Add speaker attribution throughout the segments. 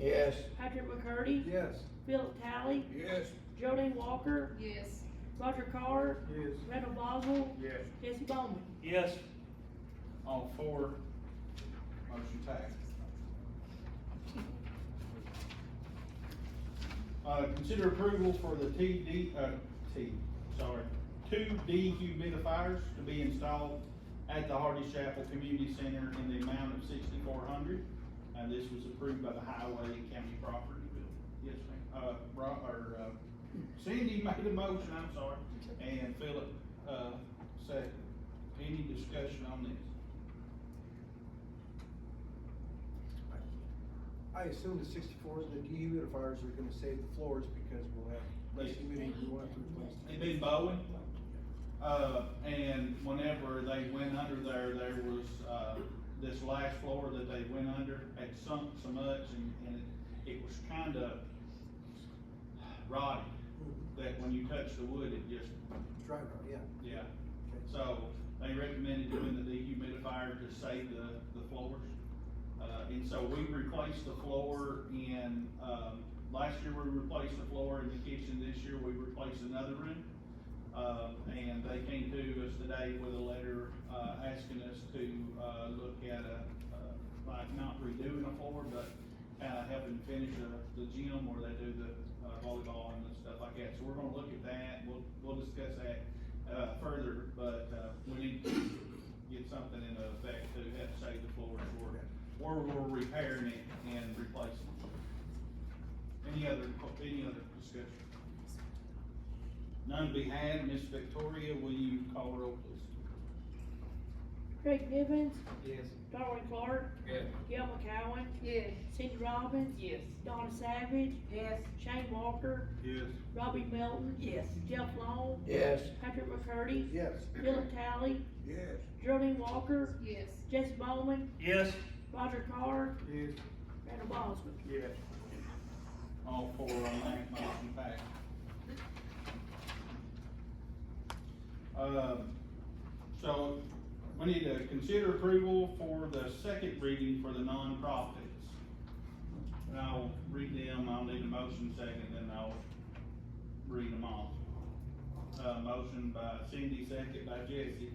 Speaker 1: Yes.
Speaker 2: Patrick McCurdy,
Speaker 1: Yes.
Speaker 2: Philip Talley,
Speaker 1: Yes.
Speaker 2: Geraldine Walker,
Speaker 3: Yes.
Speaker 2: Roger Carr,
Speaker 1: Yes.
Speaker 2: Randall Boswell,
Speaker 1: Yes.
Speaker 2: Jesse Bowman.
Speaker 4: Yes. On four, motion passed. Uh, consider approval for the TD, uh, T, sorry, two dehumidifiers to be installed at the Hardy Chapel Community Center in the amount of sixty-four hundred. And this was approved by the Highway and County Property Bill. Yes, ma'am. Uh, Rob, or, uh, Cindy made a motion, I'm sorry, and Philip, uh, second. Any discussion on this?
Speaker 1: I assume the sixty-fours, the dehumidifiers are gonna save the floors because we'll have less
Speaker 4: Yes.
Speaker 1: humidity we want to replace.
Speaker 4: It been Bowen, uh, and whenever they went under there, there was, uh, this last floor that they went under had sunk so much and, and it, it was kinda rotted, that when you touched the wood, it just,
Speaker 1: Dry rot, yeah.
Speaker 4: yeah.
Speaker 1: Okay.
Speaker 4: So they recommended doing the dehumidifier to save the, the floors. Uh, and so we replaced the floor in, um, last year we replaced the floor in the kitchen, this year we replaced another room. Uh, and they came to us today with a letter, uh, asking us to, uh, look at a, uh, like not redoing the floor, but kinda helping finish the, the gym where they do the uh, volleyball and the stuff like that. So we're gonna look at that, we'll, we'll discuss that, uh, further, but, uh, we need to get something into effect to help save the floors for, where we're repairing it and replacing it. Any other, any other discussion? None to be had, Miss Victoria, will you call the roll, please?
Speaker 2: Craig Nivens,
Speaker 1: Yes.
Speaker 2: Darwin Clark,
Speaker 1: Yes.
Speaker 2: Gil McCowen,
Speaker 3: Yes.
Speaker 2: Cindy Robbins,
Speaker 3: Yes.
Speaker 2: Donna Savage,
Speaker 3: Yes.
Speaker 2: Shane Walker,
Speaker 4: Yes.
Speaker 2: Robbie Melton,
Speaker 3: Yes.
Speaker 2: Jeff Long,
Speaker 1: Yes.
Speaker 2: Patrick McCurdy,
Speaker 1: Yes.
Speaker 2: Philip Talley,
Speaker 1: Yes.
Speaker 2: Geraldine Walker,
Speaker 3: Yes.
Speaker 2: Jesse Bowman,
Speaker 4: Yes.
Speaker 2: Roger Carr,
Speaker 1: Yes.
Speaker 2: Randall Boswell.
Speaker 1: Yes.
Speaker 4: All four on that motion passed. Um, so we need to consider approval for the second reading for the nonprofits. And I'll read them, I'll need a motion second, then I'll read them all. Uh, motion by Cindy, second by Jesse.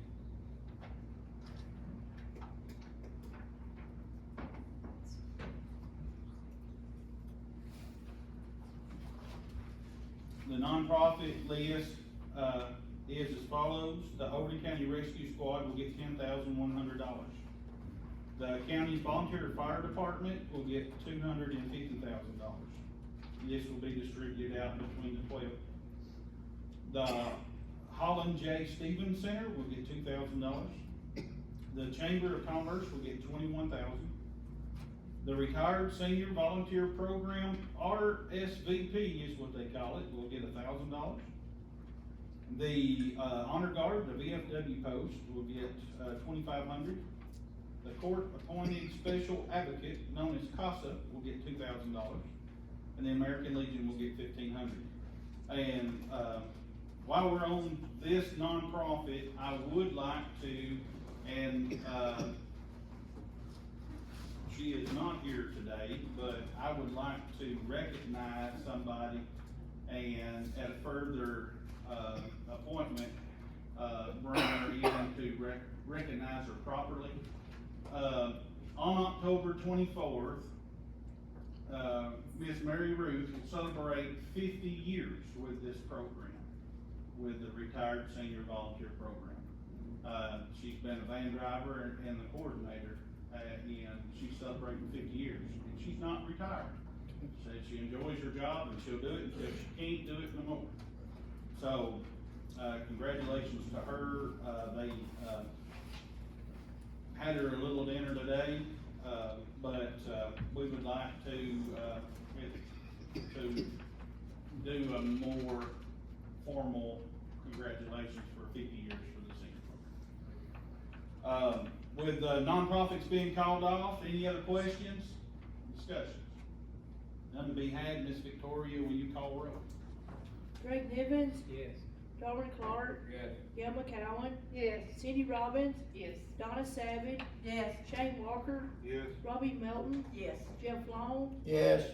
Speaker 4: The nonprofit list, uh, is as follows. The Overton County Rescue Squad will get ten thousand one hundred dollars. The county's volunteer fire department will get two hundred and fifty thousand dollars. This will be distributed out between the twelve. The Holland J. Stevens Center will get two thousand dollars. The Chamber of Commerce will get twenty-one thousand. dollars the Retired Senior Volunteer Program, RSVP is what they call it, will get a thousand dollars. The, uh, Honor Guard, the VFW post, will get, uh, twenty-five hundred. The Court Appointed Special Advocate, known as CASA, will get two thousand dollars. And the American Legion will get fifteen hundred. And, uh, while we're on this nonprofit, I would like to, and, uh, she is not here today, but I would like to recognize somebody and at a further, uh, appointment, uh, bring her in to rec- recognize her properly. Uh, on October twenty-fourth, uh, Miss Mary Ruth will celebrate fifty years with this program, with the Retired Senior Volunteer Program. Uh, she's been a van driver and, and the coordinator, uh, and she's celebrating fifty years, and she's not retired. Says she enjoys her job and she'll do it until she can't do it no more. So, uh, congratulations to her, uh, they, uh, had her a little dinner today, uh, but, uh, we would like to, uh, if- to do a more formal congratulations for fifty years for the senior program. Um, with the nonprofits being called off, any other questions, discussions? None to be had, Miss Victoria, will you call roll?
Speaker 2: Craig Nivens,
Speaker 5: Yes.
Speaker 2: Darwin Clark,
Speaker 5: Yes.
Speaker 2: Gil McCowen,
Speaker 3: Yes.
Speaker 2: Cindy Robbins,
Speaker 3: Yes.
Speaker 2: Donna Savage,
Speaker 3: Yes.
Speaker 2: Shane Walker,
Speaker 4: Yes.
Speaker 2: Robbie Melton,
Speaker 3: Yes.
Speaker 2: Jeff Long,
Speaker 1: Yes.